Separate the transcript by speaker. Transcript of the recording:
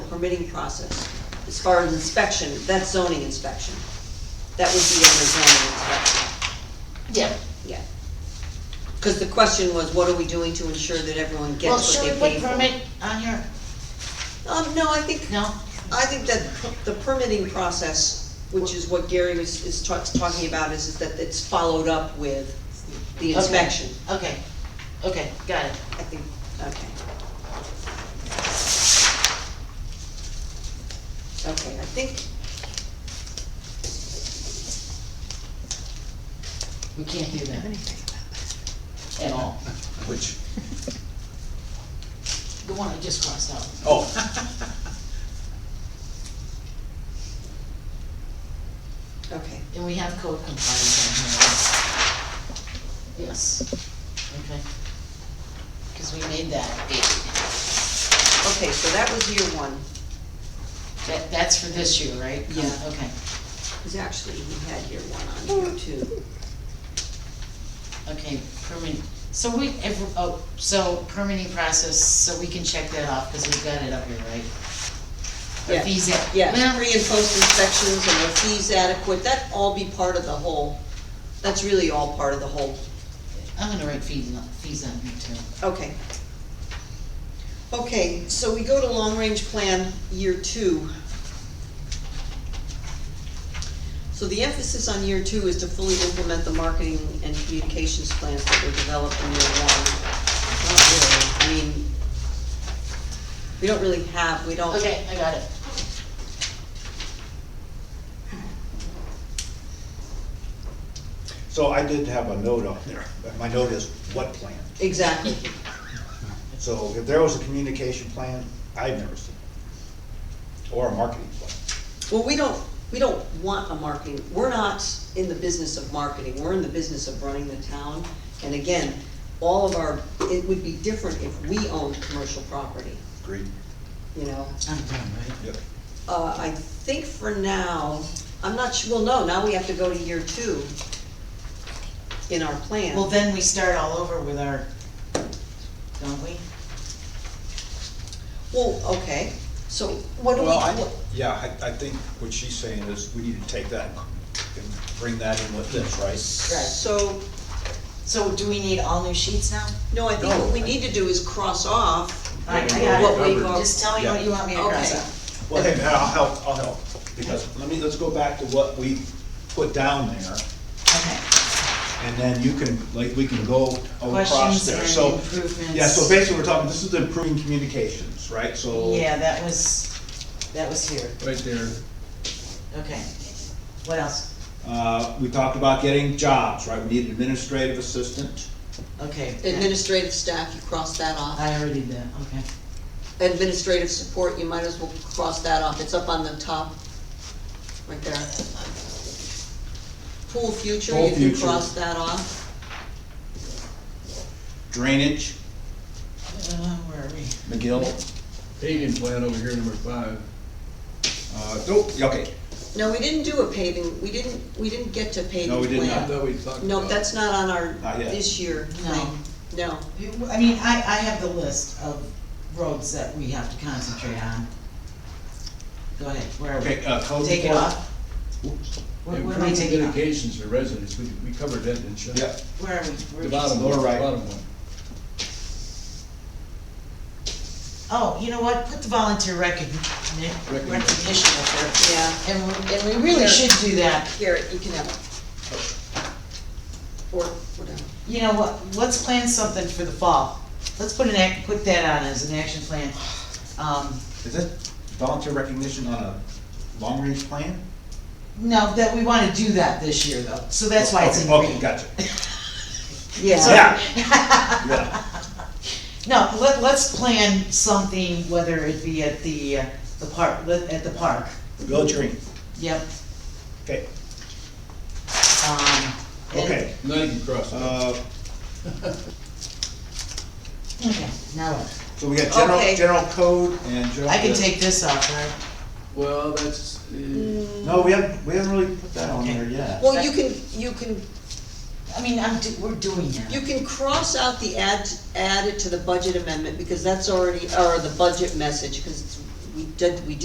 Speaker 1: permitting process. As far as inspection, that's zoning inspection. That would be under zoning inspection,
Speaker 2: Yeah,
Speaker 1: yeah. Cause the question was, what are we doing to ensure that everyone
Speaker 2: well,
Speaker 1: gets
Speaker 2: should
Speaker 1: what
Speaker 2: we
Speaker 1: they pay
Speaker 2: put
Speaker 1: for?
Speaker 2: permit on here?
Speaker 1: Um, no, I think,
Speaker 2: No?
Speaker 1: I think that the permitting process, which is what Gary was, is ta- talking about, is, is that it's followed up with the
Speaker 2: Okay.
Speaker 1: inspection.
Speaker 2: Okay, okay, got it.
Speaker 1: I think, okay. Okay, I think,
Speaker 2: We can't do that. At all.
Speaker 3: Which,
Speaker 2: The one I just crossed out.
Speaker 3: oh.
Speaker 1: okay.
Speaker 2: And we have code compliance on here. Yes, okay. Cause we made that big.
Speaker 1: Okay, so that was year one.
Speaker 2: That, that's for this year, right?
Speaker 1: Yeah.
Speaker 2: Okay,
Speaker 1: Because actually, we had year one on here too.
Speaker 2: okay, permit, so we, if, oh, so permitting process, so we can check that off, cause we've got it up here, right? Are
Speaker 1: Yeah.
Speaker 2: fees at-
Speaker 1: Yeah,
Speaker 2: well,
Speaker 1: pre and post inspections and are fees adequate, that all be part of the whole, that's really all part of the whole.
Speaker 2: I'm gonna write fees on, fees on here too.
Speaker 1: Okay. Okay, so we go to long range plan, year two. So the emphasis on year two is to fully implement the marketing and communications plans that were developed in year one. Not really, I mean, we don't really have, we don't.
Speaker 2: Okay, I got it.
Speaker 3: So I did have a note up there, but my note is what plan?
Speaker 1: Exactly,
Speaker 3: So if there was a communication plan, I've never seen it. Or a marketing plan.
Speaker 1: well, we don't, we don't want a marketing, we're not in the business of marketing, we're in the business of running the town. And again, all of our, it would be different if we owned commercial property,
Speaker 3: Agreed.
Speaker 1: you know?
Speaker 2: I'm done, right?
Speaker 3: Yep.
Speaker 1: Uh, I think for now, I'm not sure, well, no, now we have to go to year two in our plan.
Speaker 2: Well, then we start all over with our, don't we?
Speaker 1: Well, okay, so what do we?
Speaker 3: Well, I, yeah, I, I think what she's saying is we need to take that and bring that in with this, right?
Speaker 2: Right.
Speaker 1: So,
Speaker 2: So do we need all new sheets now?
Speaker 1: no, I think
Speaker 3: No.
Speaker 1: what we need to do is cross off
Speaker 2: Alright, I got
Speaker 1: what
Speaker 2: it.
Speaker 1: we've.
Speaker 3: Covered.
Speaker 2: Just tell me what you want me to cross
Speaker 1: Okay.
Speaker 2: out.
Speaker 3: Well, hey, man, I'll help, I'll help, because let me, let's go back to what we put down there,
Speaker 2: Okay.
Speaker 3: and then you can, like, we can go across
Speaker 2: Questions
Speaker 3: there,
Speaker 2: and
Speaker 3: so.
Speaker 2: improvements.
Speaker 3: Yeah, so basically, we're talking, this is improving communications, right, so.
Speaker 2: Yeah, that was, that was here,
Speaker 3: Right there.
Speaker 2: okay. What else?
Speaker 3: Uh, we talked about getting jobs, right, we need an administrative assistant,
Speaker 2: Okay. that-
Speaker 1: Administrative staff, you cross that off.
Speaker 2: I already did, that. okay.
Speaker 1: Administrative support, you might as well cross that off, it's up on the top, right there. Pool future,
Speaker 3: Pool
Speaker 1: you can
Speaker 3: future.
Speaker 1: cross that off.
Speaker 3: drainage,
Speaker 2: Uh, where are we?
Speaker 3: McGill.
Speaker 4: paving plan over here, number five.
Speaker 3: Uh, nope, yeah, okay,
Speaker 1: No, we didn't do a paving, we didn't, we didn't get to paving
Speaker 3: No, we did
Speaker 1: plan.
Speaker 3: not.
Speaker 4: I thought we talked about.
Speaker 1: No, that's not on our,
Speaker 3: Not yet.
Speaker 1: this year
Speaker 2: No.
Speaker 1: thing, no.
Speaker 2: You- I mean, I, I have the list of roads that we have to concentrate on. Go ahead, where are
Speaker 3: okay,
Speaker 2: we?
Speaker 3: uh, code.
Speaker 2: Take it
Speaker 3: enforcement.
Speaker 2: off?
Speaker 3: Oops,
Speaker 2: What what am I
Speaker 4: Improved
Speaker 2: taking off?
Speaker 4: communications for residents, we, we covered that, didn't we?
Speaker 3: yeah,
Speaker 2: Where are we? Where
Speaker 4: The
Speaker 2: are we?
Speaker 4: bottom one,
Speaker 3: Lower
Speaker 4: the
Speaker 3: right.
Speaker 4: bottom one.
Speaker 2: Oh, you know what, put the volunteer recogni-
Speaker 4: Recognition.
Speaker 2: recognition up there.
Speaker 1: Yeah,
Speaker 2: And, we- and we really should do that.
Speaker 1: Garrett, you can have it. Or whatever.
Speaker 2: You know what, let's plan something for the fall. Let's put an act, put that on as an action plan. Um,
Speaker 3: is that volunteer recognition on a long-range plan?
Speaker 2: no, that, we wanna do that this year though, so that's why it's in
Speaker 3: Okay,
Speaker 2: green.
Speaker 3: gotcha,
Speaker 2: Yeah.
Speaker 3: yeah, yeah,
Speaker 2: No, let, let's plan something, whether it be at the, uh, the park, let- at the park.
Speaker 3: village green,
Speaker 2: Yep.
Speaker 3: okay,
Speaker 2: Um, and-
Speaker 3: okay,
Speaker 4: Now you can cross it off.
Speaker 3: uh,
Speaker 2: Okay, now what?
Speaker 3: so we got general,
Speaker 1: Okay.
Speaker 3: general code and general.
Speaker 2: I can take this off, right?
Speaker 4: Well, that's, uh,
Speaker 3: No, we haven't, we haven't really put that on there yet.
Speaker 1: Well, you can, you can,
Speaker 2: I mean, I'm, do- we're doing it.
Speaker 1: you can cross out the add, add it to the budget amendment, because that's already, or the budget message, because we did, we did